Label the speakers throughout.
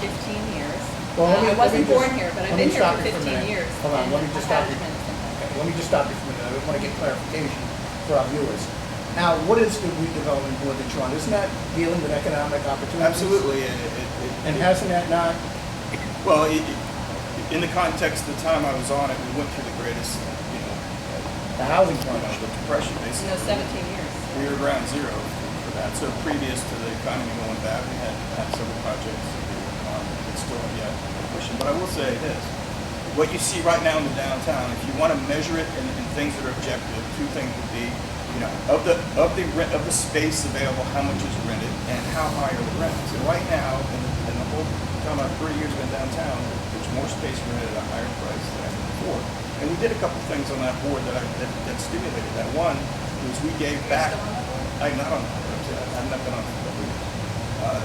Speaker 1: fifteen years.
Speaker 2: Well, let me-
Speaker 1: Uh, I
Speaker 2: let me
Speaker 1: wasn't
Speaker 2: just-
Speaker 1: born here, but I've
Speaker 2: let me
Speaker 1: been here
Speaker 2: stop
Speaker 1: for
Speaker 2: you for a
Speaker 1: fifteen
Speaker 2: minute.
Speaker 1: years.
Speaker 2: Hold on,
Speaker 1: and
Speaker 2: let me just stop you.
Speaker 1: management and things.
Speaker 2: Okay, let me just stop you for a minute, I want to get clarification for our viewers. Now, what is the redevelopment board that you're on? Isn't that dealing with economic opportunities?
Speaker 3: Absolutely, and it, it- it.
Speaker 2: And hasn't that not,
Speaker 3: Well, it, it- in the context of the time I was on it, we went through the greatest, you know,
Speaker 2: the housing
Speaker 3: you know,
Speaker 2: crunch?
Speaker 3: the depression,
Speaker 1: You
Speaker 3: basically.
Speaker 1: know, seventeen years.
Speaker 3: We were ground zero for that. So previous to the economy going bad, we had, had several projects that we were on that still are yet pushing. But I will say this, what you see right now in the downtown, if you want to measure it in, in things that are objective, two things would be, you know, of the, of the rent, of the space available, how much is rented and how high are the rents. And right now, in, the- in the whole time I've three years been downtown, there's more space rented at a higher price than ever before. And we did a couple things on that board that I, that that stimulated that. One was we gave back I'm not on, I've not been on for a week. Uh,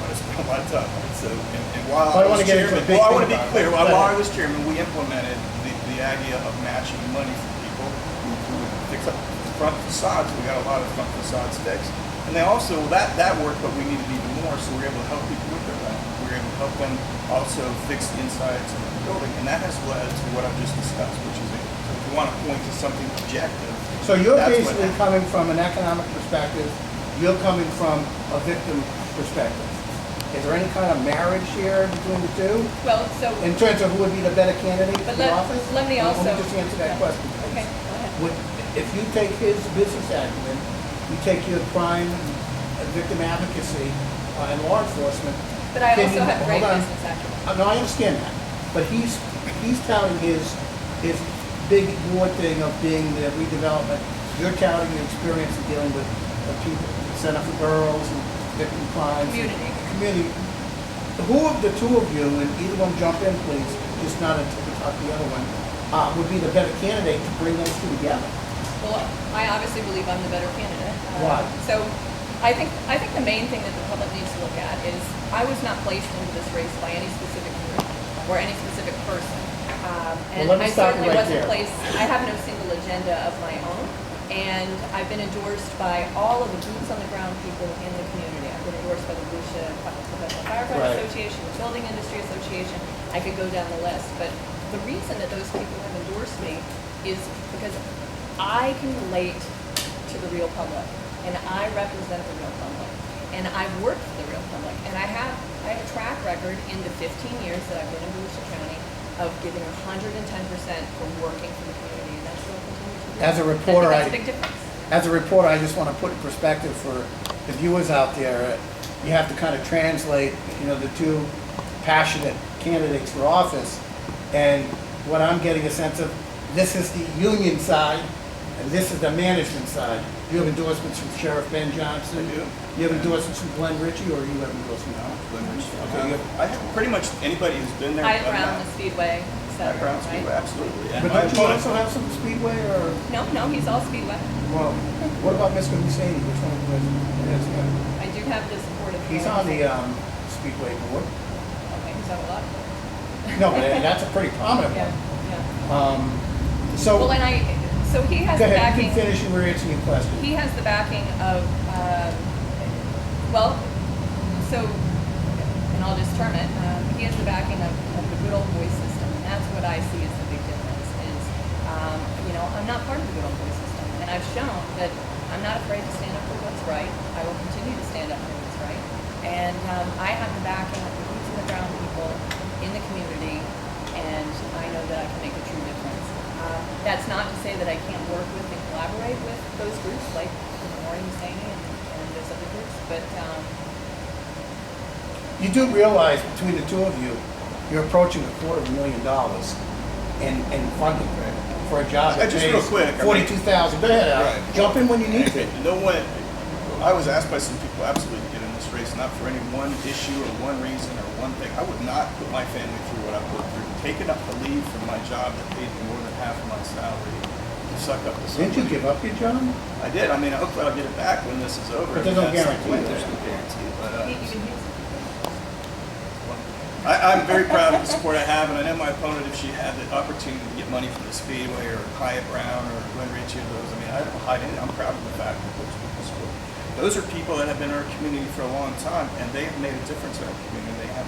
Speaker 3: But it's been a lot of time, right? so, and and while
Speaker 2: Well, I
Speaker 3: I was
Speaker 2: wanna get into
Speaker 3: chairman,
Speaker 2: the big
Speaker 3: well, I
Speaker 2: thing
Speaker 3: want to be
Speaker 2: about it.
Speaker 3: clear, while
Speaker 2: Go
Speaker 3: while I
Speaker 2: ahead.
Speaker 3: was chairman, we implemented the, the idea of matching money for people. We we would fix up front facades, we got a lot of front facades fixed. And they also, that, that worked, but we needed even more, so we were able to help people with their rent. We were able to help them also fix the insides of the building, and that has led to what I've just discussed, which is, if you want to point to something objective,
Speaker 2: So you're
Speaker 3: that's what
Speaker 2: basically
Speaker 3: happened.
Speaker 2: coming from an economic perspective, you're coming from a victim perspective. Is there any kind of marriage here between the two?
Speaker 1: Well, so,
Speaker 2: In terms of who would be the better candidate
Speaker 1: but
Speaker 2: for
Speaker 1: let,
Speaker 2: office?
Speaker 1: let me also.
Speaker 2: Let me just answer that question, please.
Speaker 1: Okay, go ahead.
Speaker 2: Would, if you take his business acumen, you take your crime, uh, victim advocacy, uh, and law enforcement.
Speaker 1: But I
Speaker 2: can
Speaker 1: also
Speaker 2: you-
Speaker 1: have great
Speaker 2: hold on.
Speaker 1: business acumen.
Speaker 2: Uh, No, I understand that, but he's, he's touting his, his big war thing of being the redevelopment. You're touting your experience in dealing with the people, Center for Girls and victim crimes.
Speaker 1: Community.
Speaker 2: Community. Who of the two of you, and either one jump in, please, just not until we talk to the other one, uh, would be the better candidate to bring those two together?
Speaker 1: Well, I obviously believe I'm the better candidate. Uh,
Speaker 2: Why?
Speaker 1: So I think, I think the main thing that the public needs to look at is, I was not placed into this race by any specific group or any specific person. Um, And
Speaker 2: Well,
Speaker 1: I
Speaker 2: let me stop you
Speaker 1: certainly
Speaker 2: right
Speaker 1: wasn't
Speaker 2: there.
Speaker 1: placed, I have no single agenda of my own. And I've been endorsed by all of the boots on the ground people in the community. I've been endorsed by the Lucia Professional Firefighter
Speaker 2: Right.
Speaker 1: Association, the Building Industry Association. I could go down the list, but the reason that those people have endorsed me is because I can relate to the real public, and I represent the real public, and I've worked for the real public, and I have, I have a track record in the 15 years that I've been in Volusia County of giving 110% for working for the community, and that's what I'll continue to do.
Speaker 2: As a reporter,
Speaker 1: That's
Speaker 2: I-
Speaker 1: a big difference.
Speaker 2: As a reporter, I just want to put in perspective for the viewers out there, you have to kind of translate, you know, the two passionate candidates for office. And what I'm getting a sense of, this is the union side, and this is the management side. You have endorsements from Sheriff Ben Johnson.
Speaker 3: I do.
Speaker 2: You have endorsements from Glenn Ritchie, or you have endorsements from?
Speaker 3: Okay, I have pretty much anybody who's been there.
Speaker 1: I
Speaker 3: done
Speaker 1: Brown,
Speaker 3: that.
Speaker 1: the Speedway, et
Speaker 3: Hyatt
Speaker 1: cetera,
Speaker 3: Brown
Speaker 1: right?
Speaker 3: Speedway, absolutely. And
Speaker 2: But
Speaker 3: my
Speaker 2: don't you
Speaker 3: opponents-
Speaker 2: also have some Speedway, or,
Speaker 1: No, no, he's all Speedway.
Speaker 2: well, what about Mr. Husseini, which one was, yes,
Speaker 1: I do have the support of.
Speaker 2: he's
Speaker 1: Karen.
Speaker 2: on the, um, Speedway board.
Speaker 1: Okay, he's on a lot. of-
Speaker 2: No, but that's a pretty prominent
Speaker 1: Yeah,
Speaker 2: one.
Speaker 1: yeah.
Speaker 2: Um, So,
Speaker 1: Well,
Speaker 2: go
Speaker 1: and I, so he has the
Speaker 2: ahead, you
Speaker 1: backing,
Speaker 2: can finish and we're answering your question.
Speaker 1: he has the backing of, um, well, so, and I'll just term it, um, he has the backing of, of the good old boy system, and that's what I see as the big difference, is, um, you know, I'm not part of the good old boy system, and I've shown that I'm not afraid to stand up for what's right, I will continue to stand up for what's right, and, um, I have the backing of the boots on the ground people in the community, and I know that I can make a true difference. Uh, That's not to say that I can't work with and collaborate with those groups, like Maureen Husseini and and those other groups, but, um,
Speaker 2: You do realize between the two of you, you're approaching a quarter of a million dollars in, in funding for a job
Speaker 3: Uh,
Speaker 2: that
Speaker 3: just real
Speaker 2: pays
Speaker 3: quick, I mean-
Speaker 2: forty-two thousand. Go ahead, Al.
Speaker 3: Right.
Speaker 2: Jump in when you need to.
Speaker 3: And No one, I was asked by some people absolutely to get in this race, not for any one issue or one reason or one thing. I would not put my family through what I put through. Taking up the lead from my job that paid me more than half of my salary to suck up to
Speaker 2: Didn't you
Speaker 3: somebody.
Speaker 2: give up your job?
Speaker 3: I did. I mean, hopefully I'll get it back when this is over.
Speaker 2: But there's no
Speaker 3: That's-
Speaker 2: guarantee, right?
Speaker 3: There's no guarantee, but, uh,
Speaker 1: he- even he's
Speaker 3: I, I'm very proud of the support I have, and I know my opponent, if she had the opportunity to get money from the Speedway or Hyatt Brown or Glenn Ritchie or those, I mean, I don't hide anything. I'm proud of the fact that those people support. Those are people that have been in our community for a long time, and they have made a difference in our community. They have